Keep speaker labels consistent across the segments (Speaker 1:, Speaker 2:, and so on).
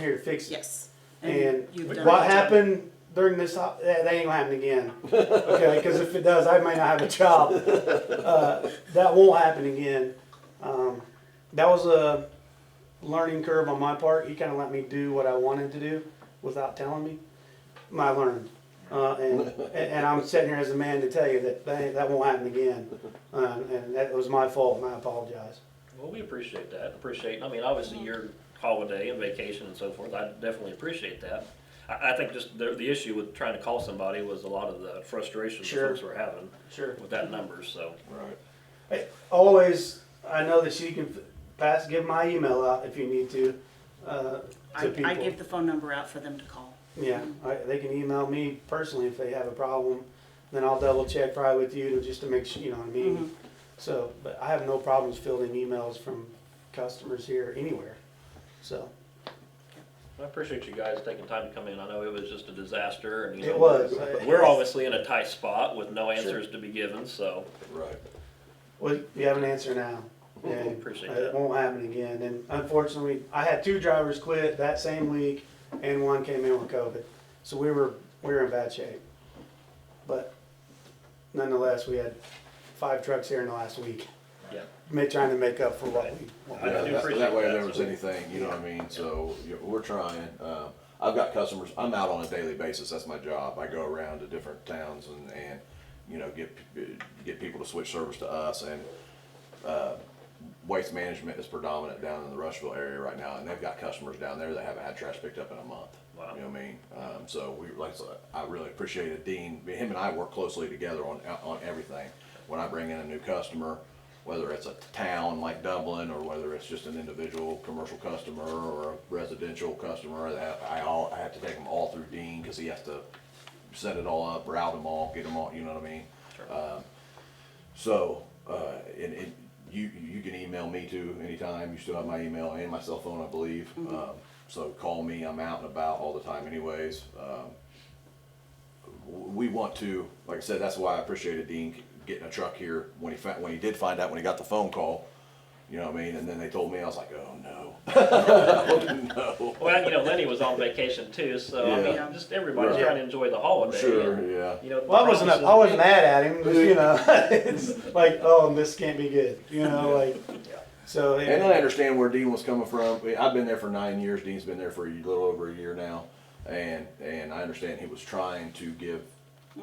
Speaker 1: here to fix it.
Speaker 2: Yes.
Speaker 1: And
Speaker 2: you've done
Speaker 1: what
Speaker 2: it.
Speaker 1: happened during this, op- that, that ain't gonna happen again. Okay, because if it does, I may not have a child. Uh, that won't happen again. Um, that was a learning curve on my part. He kind of let me do what I wanted to do without telling me. I learned. Uh, and, and- and I'm sitting here as a man to tell you that that, ain't- that won't happen again. Uh, and that was my fault, and I apologize.
Speaker 3: Well, we appreciate that. Appreciate, I mean, obviously your holiday and vacation and so forth, I definitely appreciate that. I, I think just the, the issue with trying to call somebody was a lot of the frustration the
Speaker 1: Sure.
Speaker 3: folks were having
Speaker 1: Sure.
Speaker 3: with that number, so.
Speaker 4: Right.
Speaker 1: always I know that you can pass give my email out if you need to uh, to
Speaker 2: I,
Speaker 1: people.
Speaker 2: I give the phone number out for them to call.
Speaker 1: yeah, I, they can email me personally if they have a problem. Then I'll double check probably with you to just to make sure you know what I
Speaker 2: Mm-hmm.
Speaker 1: mean. So, but I have no problems fielding emails from customers here anywhere. So
Speaker 3: I appreciate you guys taking time to come in. I know it was just a disaster and, you know.
Speaker 1: it was.
Speaker 3: We're obviously in a tight spot with no answers to be given, so
Speaker 4: Right.
Speaker 1: Well, you have an answer now. And
Speaker 3: Appreciate
Speaker 1: It
Speaker 3: that.
Speaker 1: won't happen again. And unfortunately, I had two drivers quit that same week and one came in with COVID. So we were, we were in bad shape. But nonetheless, we had five trucks here in the last week,
Speaker 3: yeah.
Speaker 1: ma- trying to make up for what we. what
Speaker 3: I
Speaker 1: we-
Speaker 3: do
Speaker 4: Yeah, that,
Speaker 3: appreciate
Speaker 4: that way
Speaker 3: that.
Speaker 4: if there was anything, you know what I mean, so, you- we're trying, uh, I've got customers, I'm out on a daily basis, that's my job, I go around to different towns and, and, you know, get, p- get people to switch service to us, and, uh, waste management is predominant down in the Rushville area right now, and they've got customers down there that haven't had trash picked up in a month.
Speaker 3: Wow.
Speaker 4: You know what I mean, um, so we, like, I said, I really appreciated Dean, him and I work closely together on, on everything. When I bring in a new customer, whether it's a town like Dublin, or whether it's just an individual commercial customer, or a residential customer, that I all, I have to take them all through Dean, cause he has to set it all up, route them all, get them all, you know what I mean? Um, so, uh, and, and you, you can email me too anytime. You still have my email and my cell phone, I believe. Um, so call me. I'm out and about all the time anyways. Um, w- we want to, like I said, that's why I appreciated Dean getting a truck here when he fa- when he did find out when he got the phone call. You know what I mean? And then they told me, I was like, oh no. oh no.
Speaker 3: Well, you know, Lenny was on vacation too, so I mean,
Speaker 4: Yeah.
Speaker 3: just everybody's
Speaker 4: Right.
Speaker 3: trying to enjoy the holiday.
Speaker 4: Sure,
Speaker 3: and,
Speaker 4: yeah.
Speaker 3: You know.
Speaker 1: Well, I wasn't,
Speaker 3: promises-
Speaker 1: I wasn't mad at him, just, you know, it's like, oh, this can't be good, you know, like, so. it-
Speaker 4: And I understand where Dean was coming from. I- I've been there for nine years. Dean's been there for a little over a year now, and and I understand he was trying to give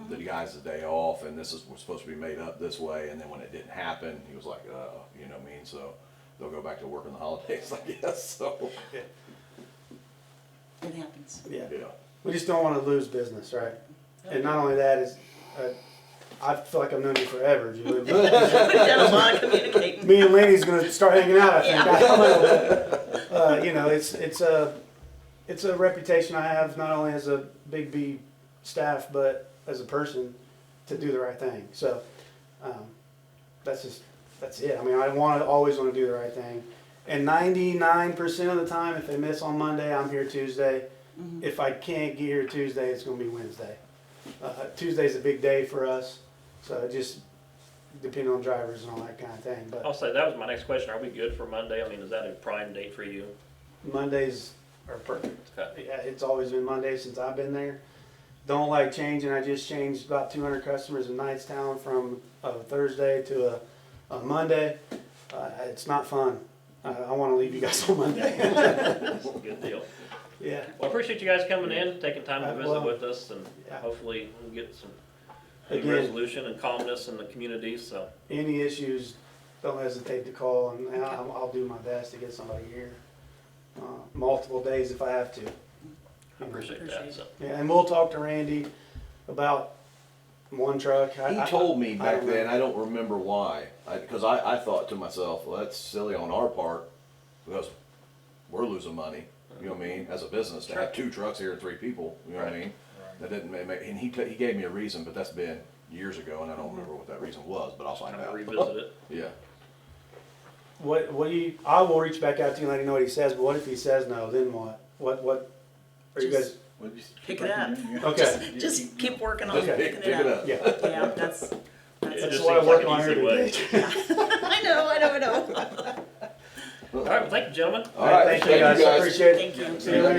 Speaker 4: the guys the day off, and this is was supposed to be made up this way. And then when it didn't happen, he was like, "Oh, you know what I mean." So they'll go back to work in the holidays, I guess. So
Speaker 2: It happens.
Speaker 1: Yeah.
Speaker 4: yeah,
Speaker 1: We just don't want to lose business, right? And not only that is, uh, I feel like I've known you forever, Julie. but
Speaker 2: We've done a lot of communicating.
Speaker 1: Me and Lenny's gonna start hanging out. I think. Uh, you know, it's it's a it's a reputation I have not only as a Big B staff, but as a person to do the right thing. So um, that's just that's it. I mean, I want to always want to do the right thing. And 99% of the time, if they miss on Monday, I'm here Tuesday. If I can't get here Tuesday, it's going to be Wednesday. Uh, Tuesday's a big day for us, so it just depending on drivers and all that kind of thing. But
Speaker 3: I'll say, that was my next question. Are we good for Monday? I mean, is that a prime date for you?
Speaker 1: Mondays are perfect.
Speaker 3: Okay.
Speaker 1: Yeah, it's always been Monday since I've been there. Don't like changing. I just changed about 200 customers in Knightstown from a Thursday to a, a Monday. Uh, it's not fun. I, I want to leave you guys on Monday.
Speaker 3: Good deal.
Speaker 1: yeah.
Speaker 3: Well, I appreciate you guys coming in, taking time
Speaker 1: Uh,
Speaker 3: to
Speaker 1: well,
Speaker 3: visit with us, and
Speaker 1: yeah.
Speaker 3: hopefully we'll get some good
Speaker 1: Again.
Speaker 3: resolution and calmness in the community, so.
Speaker 1: Any issues, don't hesitate to call, and and I'll, I'll do my best to get somebody here. Uh, multiple days if I have to.
Speaker 3: I appreciate that,
Speaker 2: Appreciate
Speaker 3: so.
Speaker 1: Yeah, and we'll talk to Randy about one truck. I-
Speaker 4: he
Speaker 1: I-
Speaker 4: told me back
Speaker 1: don't know.
Speaker 4: then. I don't remember why, because I, I thought to myself, "Well, that's silly on our part because we're losing money." You know what I mean? As a business, to have two trucks here and three people, you know what I mean? That didn't make, make and he, t- he gave me a reason, but that's been years ago, and I
Speaker 1: Mm-hmm.
Speaker 4: don't remember what that reason was, but I'll find
Speaker 3: I'm gonna
Speaker 4: out.
Speaker 3: revisit it.
Speaker 4: Yeah,
Speaker 1: What what do you? I will reach back out to you and let you know what he says. But what if he says no? Then what? What what? Are you guys
Speaker 2: Just-
Speaker 5: Well, just keep
Speaker 2: Pick it
Speaker 5: like
Speaker 2: up.
Speaker 5: you're doing, yeah.
Speaker 1: okay?
Speaker 2: Just keep working on
Speaker 4: Just pick-
Speaker 2: picking
Speaker 4: pick
Speaker 2: it
Speaker 4: it
Speaker 2: up.
Speaker 4: up.
Speaker 1: Oh, Yeah,
Speaker 2: Yeah, that's,
Speaker 3: It
Speaker 2: that's,
Speaker 1: that's
Speaker 3: just
Speaker 1: what I
Speaker 3: seems like
Speaker 1: work
Speaker 3: an
Speaker 1: on
Speaker 3: easy
Speaker 1: every
Speaker 3: way.
Speaker 1: day.
Speaker 2: I know, I know, I know.
Speaker 3: All right, well, thank you, gentlemen.
Speaker 4: All right,
Speaker 1: thank you guys. Appreciate it.
Speaker 2: Thank you.
Speaker 1: See you later.